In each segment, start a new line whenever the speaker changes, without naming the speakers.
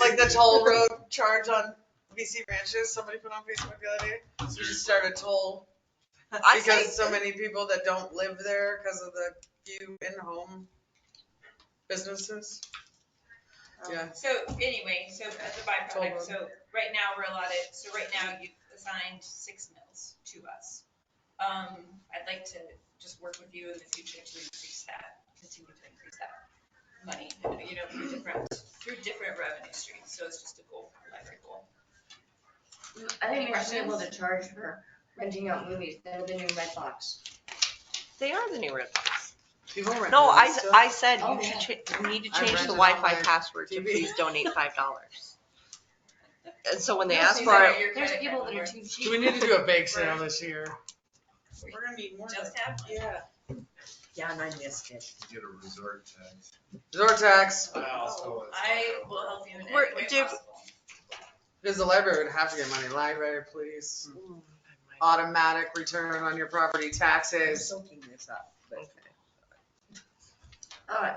like the toll road charge on VC branches, somebody put on Facebook the other day, so we should start a toll.
I
Because so
think-
many people that don't live there because of the few in-home businesses.
Oh.
Yeah,
So anyway, so as a byproduct, so right now we're allotted, so right now you've assigned six mills to us. Um, I'd like to just work with you in the future to increase that, continue to increase that money, you know, through different, through different revenue streams, so it's just a goal, like a goal.
I think we should be able to charge for renting out movies, that the new red box.
They are the new red box.
people rent.
No, I,
those
I said
Oh,
you should cha- you need to
I
change the
rented
Wi-Fi
online
password to
TV.
please donate five dollars. And so when they
No,
ask
so
for
that
it,
your
There's
credit
people that
card
are
number.
too
stuff. Do we
cheap.
need to do a bake sale this year?
We're
gonna need more.
Just have
Yeah.
one.
Yeah, and I missed it.
Get a resort tax.
Resort tax,
Also, it's-
I will help you in any
We're-
way
do-
possible.
because the library would have to get money, library, please. Automatic return on your property
I'm
taxes.
soaking this up, but.
Uh,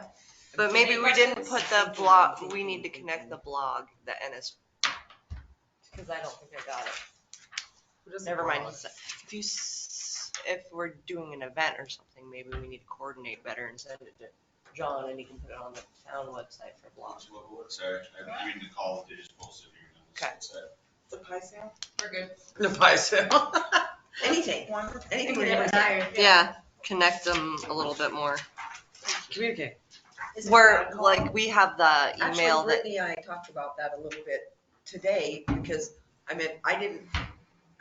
but maybe we didn't put the blog, we need to connect the blog, the NS. Cause I don't think I got it. Never mind. If you, s- if we're doing an event or something, maybe we need to coordinate better and send it to John and he can put it on the town website for blog.
Sorry, I didn't mean to call, they just posted here.
Okay.
The pie sale?
We're good.
The pie sale.
Anything, anything we ever got.
desire.
Yeah, connect them a little bit more.
Communicate.
Is it
We're,
on call?
like, we have the email
Actually,
that,
Brittany and I talked about that a little bit today, because, I mean, I didn't,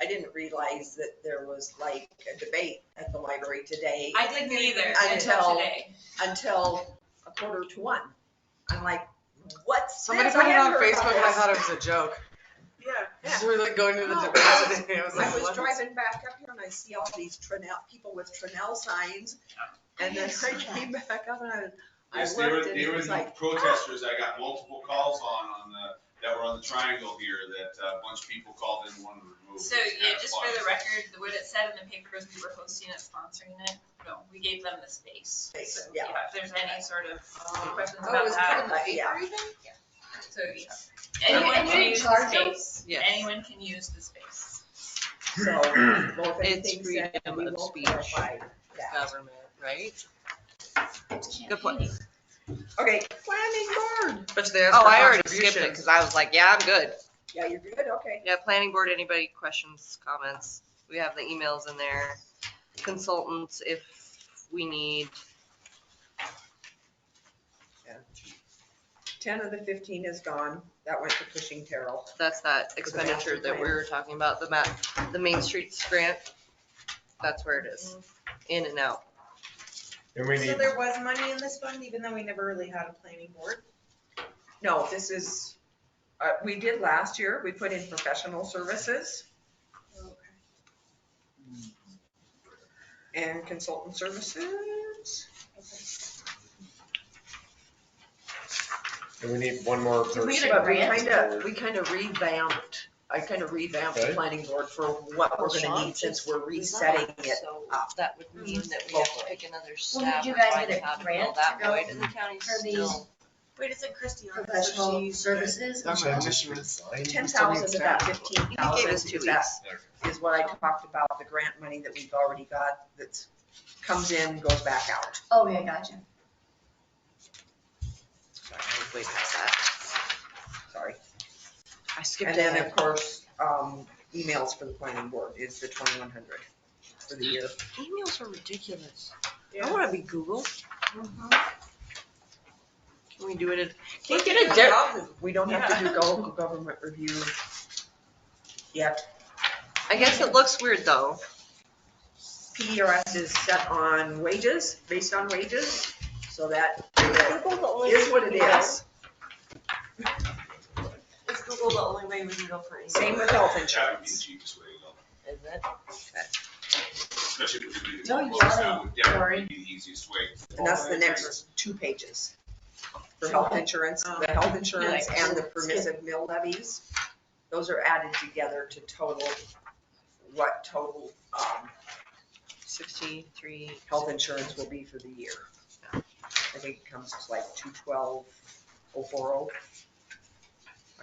I didn't realize that there was like a debate at the library today
I didn't either
Until-
until today.
until a quarter to one. I'm like, what's
Somebody
this?
put
I
it on
hadn't heard
Facebook
about
and I
this.
thought it was a joke.
Yeah.
So we're like going to the
No.
debate today. I was
I
like,
was
what?
driving back up here and I see all these Trinell, people with Trinell signs. And then I came back up and I, I
Yes, there were,
looked and
there
it
were
was like,
protesters, I got multiple calls on, on the, that were on the triangle here, that uh, a bunch of people called in, wanted to remove.
So, yeah, just for the record, the- what it said in the paper is we were hosting it, sponsoring it. No, we gave them the space.
Space,
So,
yeah.
If there's any sort of uh, questions
oh, it
about
was
that.
put in the paper even?
So, yeah.
And you-
Anyone
and you
can
didn't
use the
charge 'em?
space.
Yes.
Anyone can use the space.
So, well, if
It's
anything said,
freedom
we
of
will
speech.
clarify that.
government, right? Good point.
Um, Okay, planning board.
But they asked
Oh,
for
I already skipped it,
contributions.
cause I was like, yeah, I'm good.
Yeah, you're good, okay.
Yeah, planning board, anybody questions, comments? We have the emails in there. Consultants, if we need,
Ten of the fifteen is gone. That went to Cushing Terrell.
that's that expenditure that we were talking about, the ma, the Main Streets grant. That's where it is,
Mm-hmm.
in and out.
And we
So there was money in this fund, even though we never really had a planning board?
No, this is, uh, we did last year, we put in professional services and consultant services.
And we need one more person.
We had a
But we
grant.
kind of, we kind of revamped, I kind of revamped the
Okay.
planning board for what we're gonna need since we're resetting it.
So
up.
That would mean that we have to pick another staff.
you
or
guys
find
get a
how to fill
grant
that
to go
void, and the county's
for these-
still-
Wait, is it Christie?
Professional services.
Which I just resigned.
Ten thousand is about fifteen
You
thousand.
gave us two weeks.
Is what I talked about, the grant money that we've already got that comes in, goes back out.
Oh, yeah, gotcha.
Sorry, I was way past that.
Sorry.
I skipped
And then,
it.
of course, um, emails for the planning board is the twenty-one hundred for the year.
Emails are ridiculous. I wanna be Google. Mm-hmm. Can we do it at, can we get a di-
We don't have to do local government review yet.
I guess it looks weird though.
PDRS E is set on wages, based on wages, so that is
Is
what it is.
Is Google the only way we can go for email?
Same with health
That would be the
insurance.
cheapest way to go,
Is it?
especially if we do.
Don't
well,
yell,
That would definitely
Cory.
be the easiest way.
And that's the next two pages. For health insurance,
Oh.
the health insurance and the permissive mill levies, those are added together to total, what total, um,
Sixty-three.
health insurance will be for the year. I think it comes to like two twelve oh four oh.